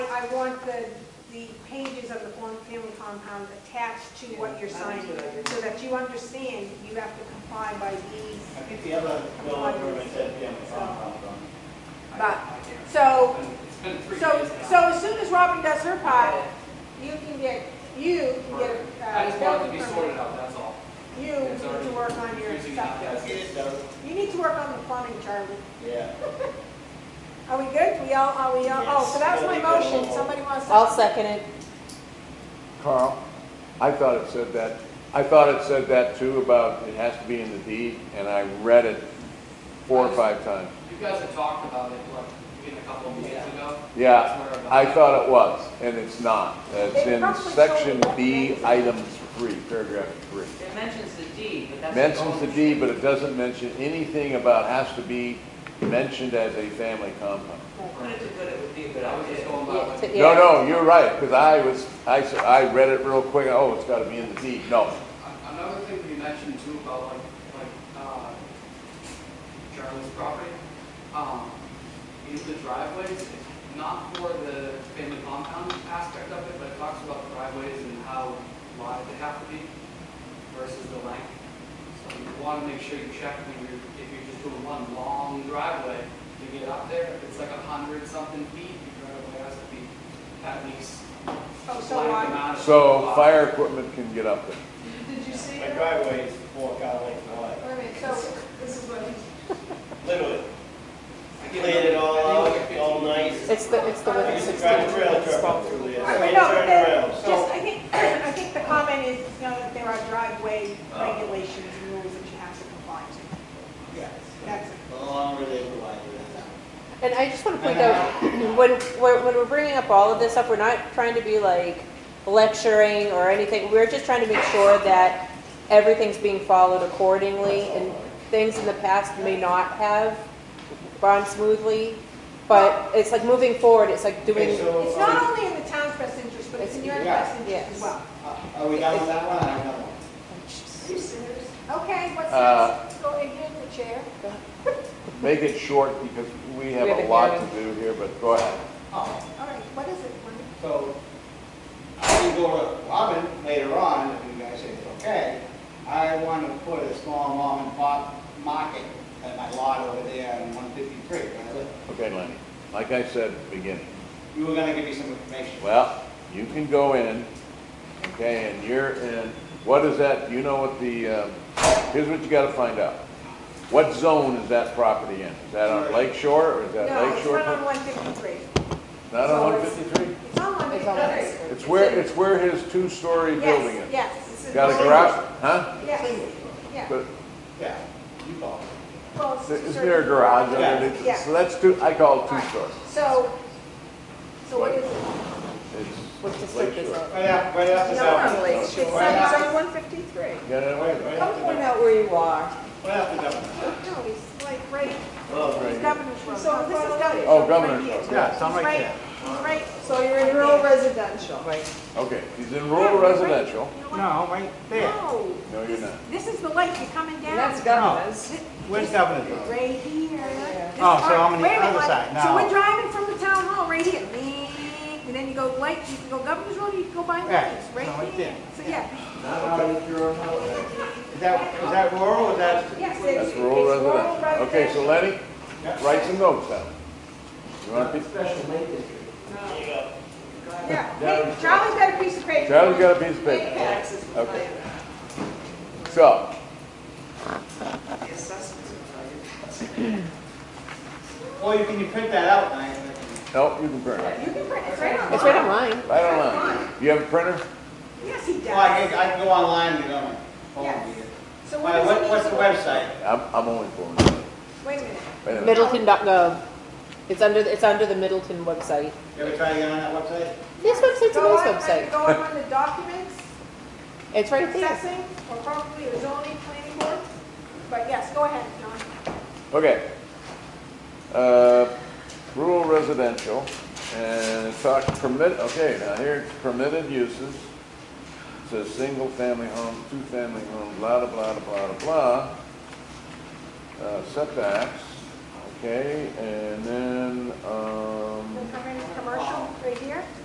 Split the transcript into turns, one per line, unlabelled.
want the, the pages of the form family compound attached to what you're
Yeah, I think
signing,
that I did.
so that you understand you have to comply by these.
I think the other bill of government said family compound
But,
I can't.
so,
It's been three
so,
days
so
now.
as soon as Robin does her part, you can get, you can get a
I
uh,
just want it to
building
be sorted
permit.
out, that's all.
You
It's
need
already
to work on your
confusing
stuff.
enough as it is.
So,
You need to work on the plumbing, Charlie.
yeah.
Are we good? We all, are we all, oh, so that was my
Yes, that'll be
motion.
good.
Somebody wants to.
I'll second it.
Carl, I thought it said that, I thought it said that too about it has to be in the deed, and I read it four or five times.
You guys had talked about it, what, in a couple of meetings ago?
Yeah,
That's where
I thought it was, and it's not. It's in section B, item three, paragraph three.
It mentions the deed, but that's.
Mentions the
only-
deed, but it doesn't mention anything about has to be mentioned as a family compound.
Put it to good, it would be a good
I was just
idea.
going by what.
Yeah,
No, no, you're right, because I was, I, s- I read it real quick, oh, it's gotta be in the deed. No,
A- Another thing we mentioned too about like, like, uh, Charlie's property, um, is the driveways, It's not for the family compound aspect of it, but it talks about driveways and how wide they have to be versus the length. So you wanna make sure you check when you're, if you're just doing one long driveway, to get up there, if it's like a hundred something feet, your driveway has to be at least.
Oh, so
blank
I,
amount of-
so fire equipment can get up there.
Did you see
My
that?
driveway is four car length wide,
Wait a minute, so this is what he's.
literally.
I get
Cleared it all
I think
out,
it's
all
15.
nice.
It's the, it's the
I
one
used to
sixteen.
drive a trailer truck through there.
I
I
don't
made
know, but
a
there,
turnaround,
just,
so.
I think, I think the comment is, you know, that there are driveway
Uh.
regulations and rules that you have to comply to. That's it.
The longer they provide it.
And I just want to point out, when, when when we're bringing up all of this up, we're not trying to be like lecturing or anything. We're just trying to make sure that everything's being followed accordingly and things in the past may not have gone smoothly. But it's like moving forward, it's like doing,
Okay, so,
um,
It's not only in the town's best interest, but it's in your
Yeah.
best interest as well.
uh, Are we done with that one? I have another one.
Are you serious?
Okay, what's
Uh,
next? Go ahead, the chair.
Make it short because we have
We have a
a lot
hearing.
to do here, but go ahead.
Oh.
All right, what is it? Wendy?
So I can go to Robin later on, if you guys say it's okay. I want to put a small mom and pop market at my lot over there on 153. where I live.
Okay, Lenny, like I said at the beginning,
You were going to give me some information.
well, you can go in, okay, and you're in, what is that, do you know what the, uh, here's what you gotta find out. What zone is that property in? Is that on Lake Shore or is that
No,
Lake
it's
Shore?
not on one fifty-three.
Not on
so
one
it's-
fifty-three?
It's on one
it's on
fifty-three.
It's where, it's where his two-story building
Yes,
is.
yes. this is
Got a
one-
garage, huh?
Yes, yeah.
But
Yeah, you call.
Well, it's
Is
two
there a
stories.
garage
Yeah.
underneath?
Yeah.
So that's two, I call it
All right,
two-story.
So, so what is it?
what
It's Lake
district is
Shore.
it?
Right after, right after
No, no,
Dublin.
it's, it's on
Right after-
zone one fifty-three.
Get it away.
Right
Don't
after
point
Dublin.
out where you are.
Right after Dublin.
Oh, No, he's like right,
Oh,
he's Governor's Road.
So
No, this is
it's
Governor's.
Oh,
Road,
Governor's
right
Road,
here.
yeah,
it's on
He's
right there.
He's right.
So you're in rural residential?
Right.
Okay, he's in
Yeah,
rural
right.
residential.
You know what?
No, right there.
No,
No, you're not.
this is the lake, you're coming down.
And that's governors.
Thi-
Where's
this-
Governor's Road?
Right here. This
Oh, so
part-
I'm on the
wait a minute,
other
like-
side
So
now.
we're driving from the town hall right here, Beep. and then you go lake, you can go Governor's Road, you can go by
Yeah,
Lakes,
no,
right
right
here.
there.
So, yeah,
Is that, is that rural or is that?
yes, it's.
That's
it's
rural residential. Okay, so Lenny, write some notes down. You want to,
There you go.
Yeah, hey, Charlie's got a piece of paper.
Charlie's got a piece of
Hey,
paper.
Pat.
Taxes.
Okay. So,
The assessments will tell you.
Or you can you print that out, Diane? and I can-
no, you can print it.
You can print, it's right on.
It's right on mine.
Right online. You have a printer?
Yes, he
Well, I can,
does.
I can go online and get on my phone.
Yes.
and get it.
So
All
what
right,
does
what-
he need
what's
to-
the website?
I'm, I'm only for it.
Wait a minute.
Wait a minute.
Middleton.gov. It's under, it's under the Middleton website.
You ever try to get on that website?
This website's a
Go
nice
on,
website.
Go on the documents,
It's right there.
assessing, or probably the zoning planning board. But yes, go ahead, John.
Okay. Uh, Rural residential, and talk permit, okay, now here, it's permitted uses. It Says single-family home, two-family home, blah, blah, blah, blah, blah, blah. Uh, Setbacks, okay, and then, um.
We're coming commercial right here.